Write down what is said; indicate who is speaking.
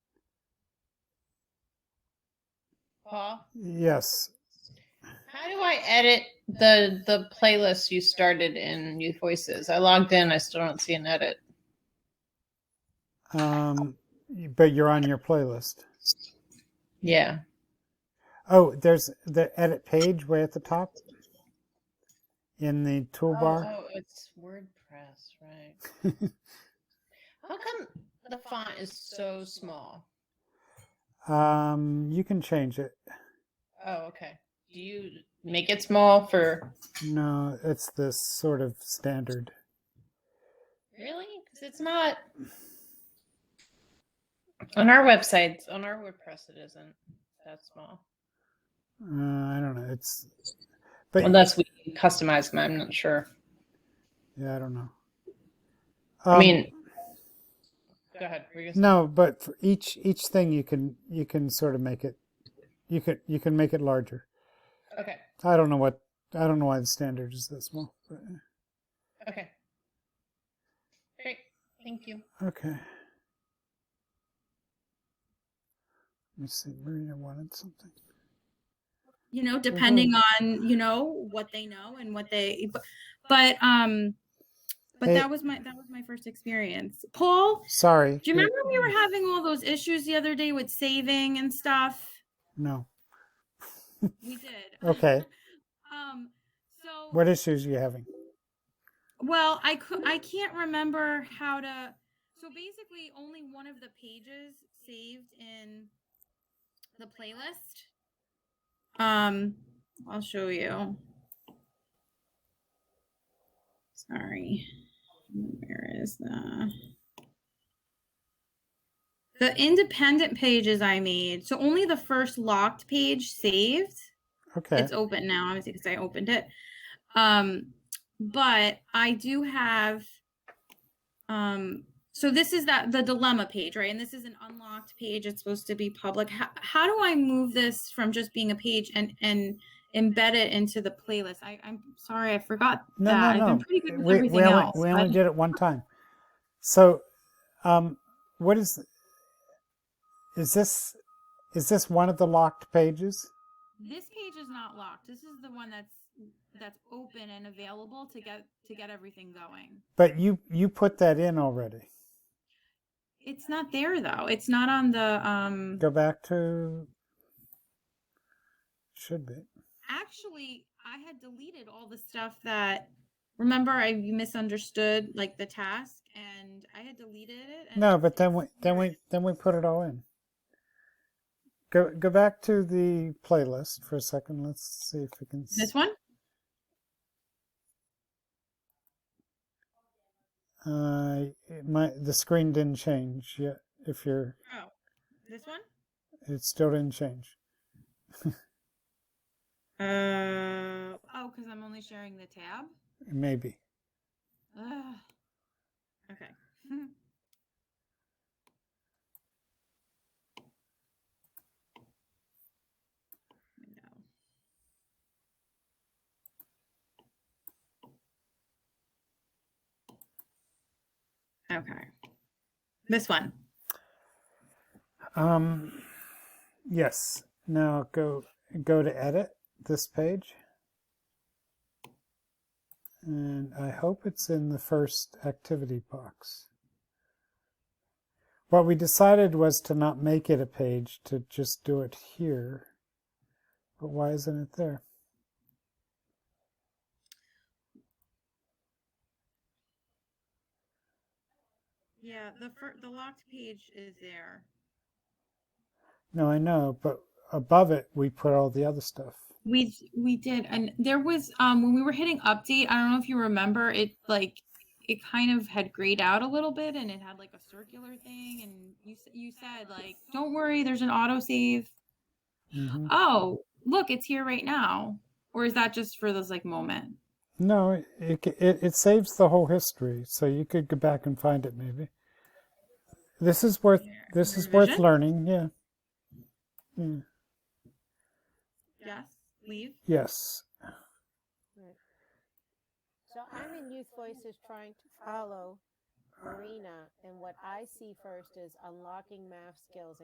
Speaker 1: Paul?
Speaker 2: Yes.
Speaker 1: How do I edit the the playlist you started in Youth Voices? I logged in. I still don't see an edit.
Speaker 2: Um, but you're on your playlist.
Speaker 1: Yeah.
Speaker 2: Oh, there's the edit page way at the top in the toolbar.
Speaker 1: Oh, oh, it's WordPress, right? How come the font is so small?
Speaker 2: Um, you can change it.
Speaker 1: Oh, okay. Do you make it small for
Speaker 2: No, it's this sort of standard.
Speaker 1: really? Because it's not on our websites. On our WordPress, it isn't that small.
Speaker 2: Uh, I don't know. It's, but
Speaker 1: Unless we customize them, I'm not sure.
Speaker 2: yeah, I don't know.
Speaker 1: I
Speaker 2: Um,
Speaker 1: mean, go ahead. were you gonna say-
Speaker 2: no, but for each each thing you can you can sort of make it, you can you can make it larger.
Speaker 1: Okay.
Speaker 2: I don't know what I don't know why the standard is that small. But,
Speaker 1: Okay. Great. Thank you.
Speaker 2: okay. Let me see. Marina wanted something.
Speaker 3: you know depending
Speaker 2: Mm-hmm.
Speaker 3: on you know what they know and what they but, but um but
Speaker 2: Hey.
Speaker 3: that was my that was my first experience paul
Speaker 2: Sorry.
Speaker 3: do you
Speaker 2: you're-
Speaker 3: remember we were having all those issues the other day with saving and stuff
Speaker 2: No.
Speaker 3: we did
Speaker 2: Okay.
Speaker 3: um so
Speaker 2: What issues are you having?
Speaker 3: well i could i can't remember how to so basically only one of the pages saved in the playlist um i'll show you sorry where is the the independent pages i made so only the first locked page saved
Speaker 2: Okay.
Speaker 3: it's open now, obviously, because I opened it. Um, but I do have. Um, so this is that the dilemma page, right? And this is an unlocked page. It's supposed to be public. How, how do I move this from just being a page and and embed it into the playlist? I, I'm sorry, I forgot
Speaker 2: No,
Speaker 3: that.
Speaker 2: no,
Speaker 3: I've
Speaker 2: no.
Speaker 3: been pretty good with
Speaker 2: We,
Speaker 3: everything
Speaker 2: we only,
Speaker 3: else.
Speaker 2: we
Speaker 3: but-
Speaker 2: only did it one time. So, um, what is is this? Is this one of the locked pages?
Speaker 3: this page is not locked. This is the one that's that's open and available to get to get everything going.
Speaker 2: But you you put that in already.
Speaker 3: It's not there though. It's not on the um.
Speaker 2: Go back to. Should be.
Speaker 3: actually i had deleted all the stuff that remember i you misunderstood like the task and i had deleted it and
Speaker 2: No, but then we
Speaker 3: it's
Speaker 2: then
Speaker 3: here.
Speaker 2: we then we put it all in. Go go back to the playlist for a second. Let's see if we can.
Speaker 3: this one
Speaker 2: Uh, it- my the screen didn't change yet. If you're,
Speaker 3: oh this one
Speaker 2: it still didn't change.
Speaker 3: uh oh because i'm only sharing the tab
Speaker 2: Maybe.
Speaker 3: Ugh. okay Window. Okay. This one.
Speaker 2: Um, yes. Now go go to edit this page, and I hope it's in the first activity box. What we decided was to not make it a page, to just do it here. But why isn't it there?
Speaker 3: Yeah, the fir- the locked page is there.
Speaker 2: No, I know, but above it we put all the other stuff.
Speaker 3: We we did, and there was um when we were hitting update. I don't know if you remember it, like it kind of had grayed out a little bit, and it had like a circular thing. And you s- you said like, don't worry, there's an autosave.
Speaker 2: Mhm.
Speaker 3: Oh, look, it's here right now. Or is that just for this like moment?
Speaker 2: No, it, it ca- it it saves the whole history, so you could go back and find it maybe. This is worth
Speaker 3: Yeah.
Speaker 2: this is worth
Speaker 3: Revision?
Speaker 2: learning. Yeah. yeah.
Speaker 3: Yes. Leave.
Speaker 2: Yes.
Speaker 4: So I'm in Youth Voices trying to follow Marina, and what I see first is unlocking math skills